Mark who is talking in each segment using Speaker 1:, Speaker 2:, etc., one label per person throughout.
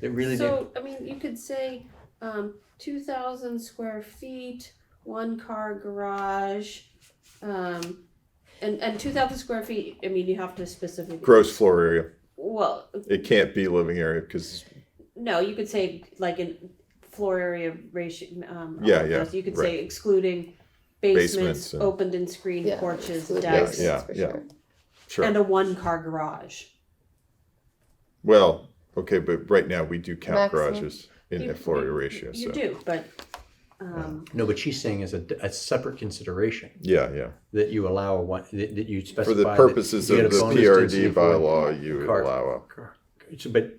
Speaker 1: It really did.
Speaker 2: So, I mean, you could say, um, two thousand square feet, one car garage, um, and, and two thousand square feet, I mean, you have to specifically.
Speaker 3: Gross floor area.
Speaker 2: Well,
Speaker 3: It can't be living area because
Speaker 2: no, you could say like in floor area ratio, um. all
Speaker 3: Yeah,
Speaker 2: of
Speaker 3: yeah,
Speaker 2: those. You could say excluding
Speaker 3: Basements
Speaker 2: basements,
Speaker 3: and-
Speaker 2: opened and screened porches,
Speaker 4: exclude
Speaker 2: decks,
Speaker 4: basements
Speaker 3: yeah,
Speaker 4: for
Speaker 3: yeah.
Speaker 4: sure.
Speaker 3: sure.
Speaker 2: and a one-car garage.
Speaker 3: well, okay, but right now we do count
Speaker 4: Maximum.
Speaker 3: garages in
Speaker 2: You-
Speaker 3: the floor area
Speaker 2: you-
Speaker 3: ratio.
Speaker 2: You
Speaker 3: So
Speaker 2: do, but, um,
Speaker 5: No, what she's saying is a, a separate consideration
Speaker 3: yeah, yeah.
Speaker 5: that you allow a one that, that you specify
Speaker 3: For the
Speaker 5: that
Speaker 3: purposes
Speaker 5: you get
Speaker 3: of
Speaker 5: a
Speaker 3: the
Speaker 5: bonus density
Speaker 3: PRD
Speaker 5: for one
Speaker 3: bylaw, you would
Speaker 5: car.
Speaker 3: allow up.
Speaker 5: car. So, but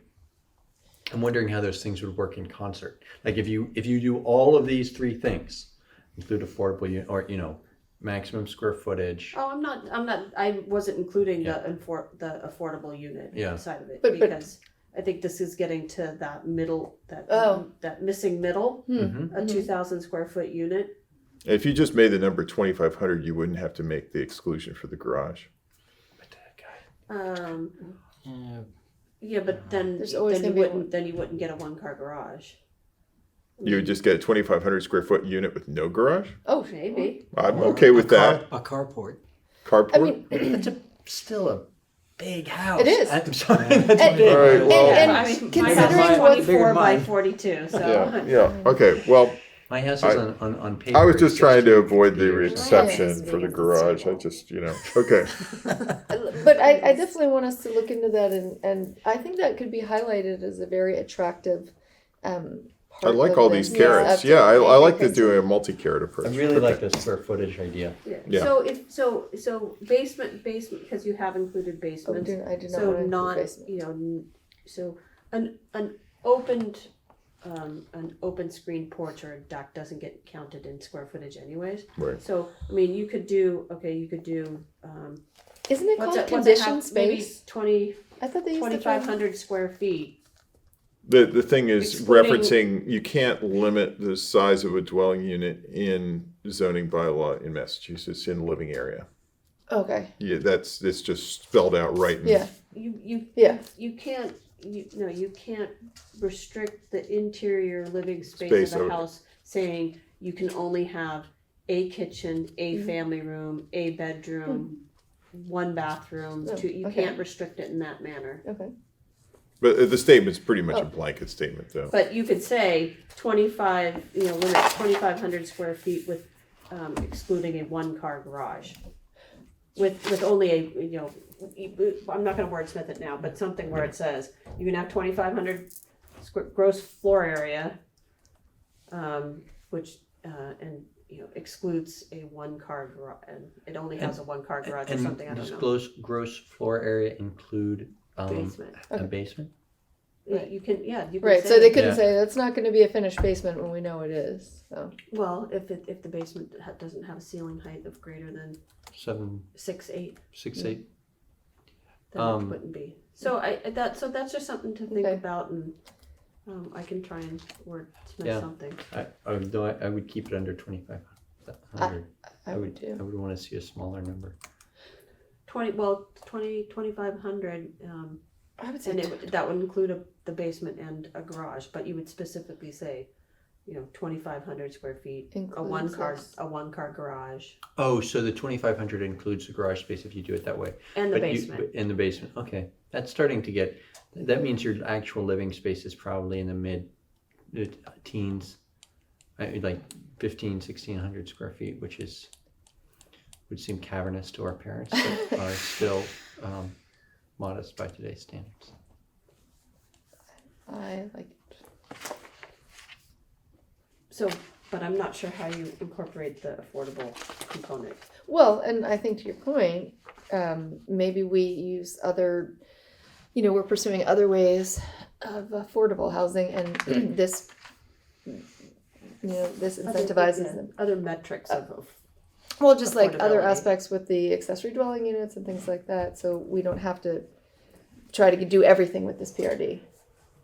Speaker 5: I'm wondering how those things would work in concert. Like if you if you do all of these three things, include affordable u- or you know maximum square footage.
Speaker 2: oh, I'm not, I'm not, I wasn't including the infor, the affordable unit
Speaker 5: Yeah.
Speaker 2: side of it,
Speaker 4: But- but-
Speaker 2: because I think this is getting to that middle, that,
Speaker 4: Oh. Mm-hmm.
Speaker 2: that missing middle,
Speaker 4: Mm.
Speaker 5: Mhm.
Speaker 2: a two thousand square foot unit.
Speaker 3: If you just made the number 2,500, you wouldn't have to make the exclusion for the garage.
Speaker 2: Um,
Speaker 6: Uh,
Speaker 2: yeah, but then,
Speaker 4: There's always
Speaker 2: then you
Speaker 4: gonna be a
Speaker 2: wouldn't, then you wouldn't get a one-car garage.
Speaker 3: You would just get a 2,500 square foot unit with no garage.
Speaker 4: Oh,
Speaker 2: Maybe.
Speaker 3: I'm okay with that.
Speaker 6: A carport.
Speaker 3: Carport.
Speaker 4: I mean,
Speaker 5: That's a, still a big house.
Speaker 4: It is.
Speaker 5: I'm sorry. That's
Speaker 4: And-
Speaker 5: big.
Speaker 3: All right,
Speaker 4: and,
Speaker 3: well-
Speaker 4: and
Speaker 2: Oh, I mean, my house
Speaker 4: considering
Speaker 2: is
Speaker 6: mine.
Speaker 4: what
Speaker 2: twenty-four
Speaker 6: Bigger
Speaker 2: by
Speaker 6: mine.
Speaker 2: forty-two,
Speaker 3: yeah,
Speaker 2: so.
Speaker 3: yeah. Okay. Well,
Speaker 5: My house is
Speaker 3: I-
Speaker 5: on, on, on paper.
Speaker 3: I was just
Speaker 5: it's
Speaker 3: trying to
Speaker 5: 16
Speaker 3: avoid the
Speaker 5: years.
Speaker 3: exception for the garage. I just, you know. Okay.
Speaker 4: but I, I definitely want us to look into that and, and I think that could be highlighted as a very attractive um
Speaker 3: I
Speaker 4: part
Speaker 3: like
Speaker 4: of
Speaker 3: all
Speaker 4: this.
Speaker 3: these carrots. Yeah, I, I like to do a multi-carrot approach.
Speaker 5: I really
Speaker 3: Okay.
Speaker 5: like the square footage idea.
Speaker 2: Yeah,
Speaker 3: Yeah.
Speaker 2: so if, so, so basement, basement, because you have included
Speaker 4: Oh, I
Speaker 2: basements.
Speaker 4: do, I do not
Speaker 2: So
Speaker 4: want to
Speaker 2: not,
Speaker 4: basement.
Speaker 2: you know, n- so an, an opened, um, an open screen porch or a deck doesn't get counted in square footage anyways.
Speaker 3: Right.
Speaker 2: So, I mean, you could do, okay, you could do, um,
Speaker 4: Isn't it
Speaker 2: what's
Speaker 4: called
Speaker 2: it, what's it
Speaker 4: conditioned
Speaker 2: have, maybe
Speaker 4: space?
Speaker 2: twenty,
Speaker 4: I thought they used to
Speaker 2: twenty-five hundred square feet.
Speaker 3: The, the thing is
Speaker 2: Excluding-
Speaker 3: referencing, you can't limit the size of a dwelling unit in zoning bylaw in Massachusetts in living area.
Speaker 4: Okay,
Speaker 3: Yeah, that's, it's just spelled out right. in-
Speaker 4: yeah,
Speaker 2: You, you,
Speaker 4: yeah,
Speaker 2: you can't, you, no, you can't restrict the interior living
Speaker 3: Space
Speaker 2: space of
Speaker 3: out.
Speaker 2: the house, saying you can only have a kitchen, a
Speaker 4: Mm-hmm.
Speaker 2: family room, a bedroom, one bathroom,
Speaker 4: Hmm. Oh,
Speaker 2: two, you
Speaker 4: okay.
Speaker 2: can't restrict it in that manner.
Speaker 4: okay.
Speaker 3: But uh, the statement's pretty much a
Speaker 4: Oh.
Speaker 3: blanket statement though.
Speaker 2: But you could say twenty-five, you know, limit twenty-five hundred square feet with, um, excluding a one-car garage. With, with only a, you know, I'm not gonna wordsmith it now, but something where it says, you can have twenty-five hundred square, gross floor area. Um, which, uh, and, you know, excludes a one-car garage, and it only has a one-car garage or
Speaker 5: And
Speaker 2: something, I
Speaker 5: does
Speaker 2: don't know.
Speaker 5: gross, gross floor area include um,
Speaker 2: Basement.
Speaker 5: a basement?
Speaker 2: Yeah, You can, yeah, you can
Speaker 4: Right, so
Speaker 2: say-
Speaker 4: they couldn't
Speaker 5: Yeah.
Speaker 4: say that's not going to be a finished basement when we know it is. So
Speaker 2: Well, if it, if the basement ha- doesn't have a ceiling height of greater than
Speaker 5: Seven,
Speaker 2: six eight,
Speaker 5: six, eight.
Speaker 2: then
Speaker 5: Um,
Speaker 2: it wouldn't be. So I I- that so that's just something to think
Speaker 4: Okay.
Speaker 2: about, and um, I can try and wordsmith
Speaker 5: Yeah.
Speaker 2: something.
Speaker 5: I, I would, though I, I would keep it under twenty-five hundred.
Speaker 4: I would too.
Speaker 5: I would want to see a smaller number.
Speaker 2: Twenty well twenty twenty five hundred, um,
Speaker 4: I would say
Speaker 2: and it, would- that would include a, the basement and a garage, but you would specifically say, you know, twenty five hundred square feet, a
Speaker 4: Includes
Speaker 2: one car
Speaker 4: this.
Speaker 2: a one car garage,
Speaker 5: Oh, so the twenty-five hundred includes the garage space if you do it that way.
Speaker 2: and the
Speaker 5: But you-
Speaker 2: basement.
Speaker 5: but In the basement, okay. That's starting to get, that means your actual living space is probably in the mid the teens. I mean, like fifteen, sixteen hundred square feet, which is, would seem cavernous to our parents, but are still um, modest by today's standards.
Speaker 4: I like it.
Speaker 2: so, but I'm not sure how you incorporate the affordable component.
Speaker 4: Well, and I think to your point, um, maybe we use other, you know, we're pursuing other ways of affordable housing, and this, you know, this incentivizes them.
Speaker 2: other metrics of. of
Speaker 4: Well, just like other
Speaker 2: affordability.
Speaker 4: aspects with the accessory dwelling units and things like that, so we don't have to try to do everything with this PRD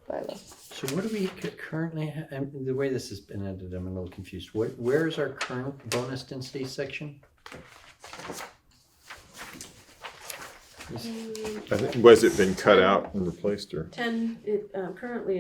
Speaker 4: bylaw.
Speaker 5: So what do we cu- currently, ha- um, the way this has been edited, I'm a little confused. Where, where is our current bonus density section?
Speaker 3: I think- Was it been cut out and replaced or?
Speaker 2: Ten, it, uh, currently